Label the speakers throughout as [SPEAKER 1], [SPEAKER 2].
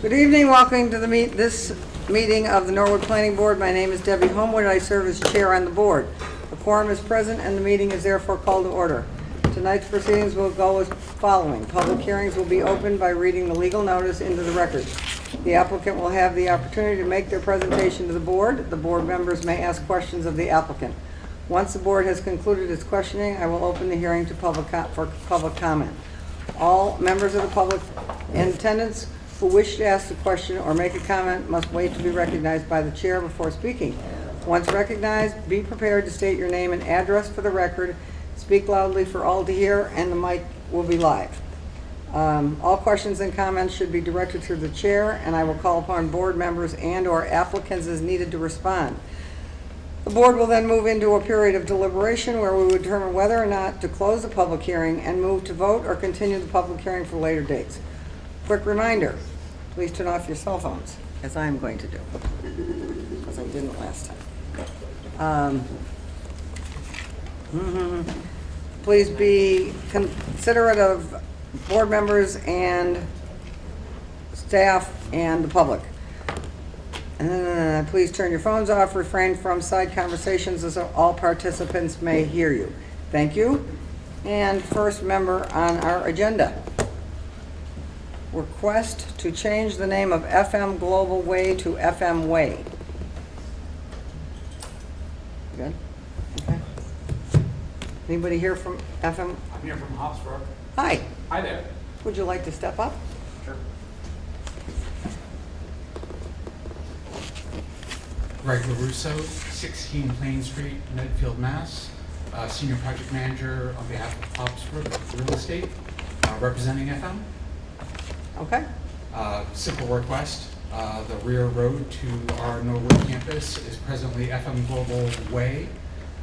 [SPEAKER 1] Good evening, welcome to the meet, this meeting of the Norwood Planning Board. My name is Debbie Homewood, I serve as Chair on the Board. The quorum is present and the meeting is therefore called to order. Tonight's proceedings will go as following. Public hearings will be opened by reading the legal notice into the record. The applicant will have the opportunity to make their presentation to the Board. The Board members may ask questions of the applicant. Once the Board has concluded its questioning, I will open the hearing to public, co- for public comment. All members of the public in attendance who wish to ask a question or make a comment must wait to be recognized by the chair before speaking. Once recognized, be prepared to state your name and address for the record, speak loudly for all to hear, and the mic will be live. Um, All questions and comments should be directed through the chair, and I will call upon board members and/or applicants as needed to respond. The board will then move into a period of deliberation where we will determine whether or not to close the public hearing and move to vote or continue the public hearing for later dates. Quick reminder, please turn off your cell phones, as I am going to do, because I didn't last time. Um, please be considerate of board members and staff and the public. Uh, Please turn your phones off, refrain from side conversations as all participants may hear you. Thank you. And first member on our agenda. Request to change the name of FM Global Way to FM Way. Good? Okay. Anybody here from FM?
[SPEAKER 2] I'm here from Hofstra.
[SPEAKER 1] Hi,
[SPEAKER 2] Hi there.
[SPEAKER 1] would you like to step up?
[SPEAKER 2] Sure. Greg LaRusso, 16 Plain Street, Medfield, Mass. Uh, Senior Project Manager on behalf of Hofstra Real Estate, uh, representing FM.
[SPEAKER 1] Okay,
[SPEAKER 2] Uh, Simple request, uh, the rear road to our Norwood campus is presently FM Global Way.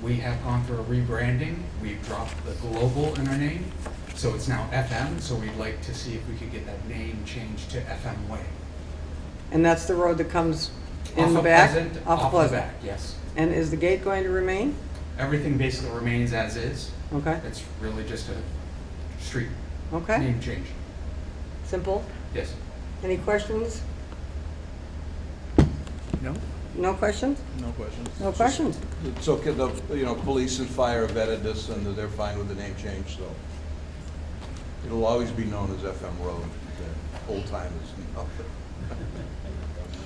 [SPEAKER 2] We have gone through a rebranding, we've dropped the global in our name, so it's now FM, so we'd like to see if we could get that name changed to FM Way.
[SPEAKER 1] and that's the road that comes
[SPEAKER 2] Off
[SPEAKER 1] in the
[SPEAKER 2] of
[SPEAKER 1] back?
[SPEAKER 2] Pleasant,
[SPEAKER 1] Off
[SPEAKER 2] Off the
[SPEAKER 1] Pleasant.
[SPEAKER 2] back, yes.
[SPEAKER 1] And is the gate going to remain?
[SPEAKER 2] Everything basically remains as is.
[SPEAKER 1] Okay,
[SPEAKER 2] It's really just a street
[SPEAKER 1] okay,
[SPEAKER 2] name change.
[SPEAKER 1] simple.
[SPEAKER 2] Yes.
[SPEAKER 1] Any questions?
[SPEAKER 3] No,
[SPEAKER 1] No questions?
[SPEAKER 3] no questions.
[SPEAKER 1] No questions?
[SPEAKER 4] It's okay, the, you know, police and fire have vetted this, and they're fine with the name change, so. It'll always be known as FM Road, the old timers, know.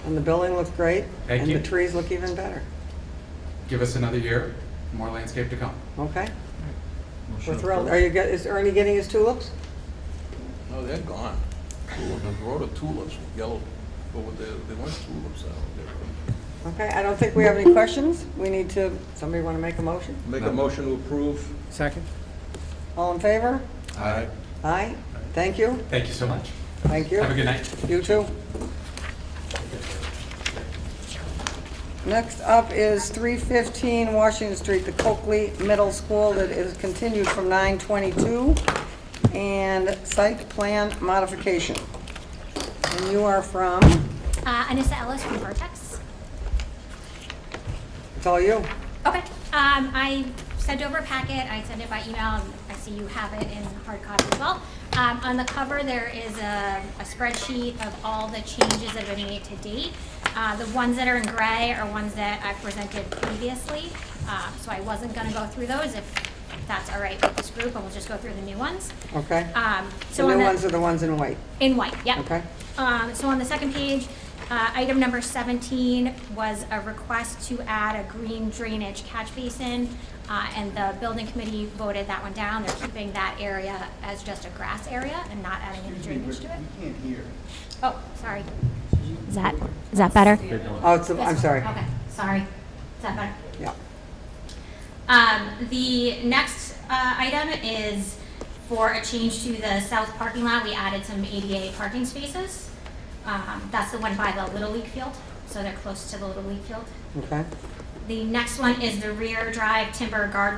[SPEAKER 1] And the building looks great?
[SPEAKER 2] Thank
[SPEAKER 1] And
[SPEAKER 2] you.
[SPEAKER 1] the trees look even better?
[SPEAKER 2] Give us another year, more landscape to come.
[SPEAKER 1] Okay, we're thrilled. Are you, get- is Ernie getting his tulips?
[SPEAKER 4] No, they're gone. The road of tulips, yellow, but with the, they weren't tulips, I
[SPEAKER 1] Okay, I don't think we have any questions. We need to, somebody want to make a motion?
[SPEAKER 4] do Make a motion to approve.
[SPEAKER 3] Second?
[SPEAKER 1] All in favor?
[SPEAKER 4] Aye.
[SPEAKER 1] Aye? Thank you,
[SPEAKER 2] Thank you so much.
[SPEAKER 1] thank you.
[SPEAKER 2] Have a good night.
[SPEAKER 1] You too. Next up is 315 Washington Street, the Coakley Middle School that is continued from 922, and site plan modification. And you are from,
[SPEAKER 5] Uh, Anissa Ellis from Vertex.
[SPEAKER 1] it's all you.
[SPEAKER 5] Okay. Um, I sent over a packet. I sent it by email. and I see you have it in hard copy as well. Um, on the cover, there is a, a spreadsheet of all the changes that have been made to date. Uh, the ones that are in gray are ones that I presented previously. Uh, so I wasn't going to go through those if that's all right with this group, and we'll just go through the new ones.
[SPEAKER 1] Okay.
[SPEAKER 5] Um, so
[SPEAKER 1] The
[SPEAKER 5] on
[SPEAKER 1] new
[SPEAKER 5] the-
[SPEAKER 1] ones are the ones in white.
[SPEAKER 5] In white, yeah.
[SPEAKER 1] Okay.
[SPEAKER 5] Um, so on the second page, uh, item number seventeen was a request to add a green drainage catch basin. Uh, and the building committee voted that one down. They're keeping that area as just a grass area and not adding any drainage to it. We can't hear. Oh, sorry. Is that, is that better?
[SPEAKER 1] Oh, it's, the- I'm
[SPEAKER 5] This-
[SPEAKER 1] sorry.
[SPEAKER 5] Okay, sorry. Is that better?
[SPEAKER 1] Yeah.
[SPEAKER 5] Um, the next uh, item is for a change to the south parking lot. We added some ADA parking spaces. Um, that's the one by the Little League field, so they're close to the Little League field.
[SPEAKER 1] Okay.
[SPEAKER 5] The next one is the rear drive timber guardrail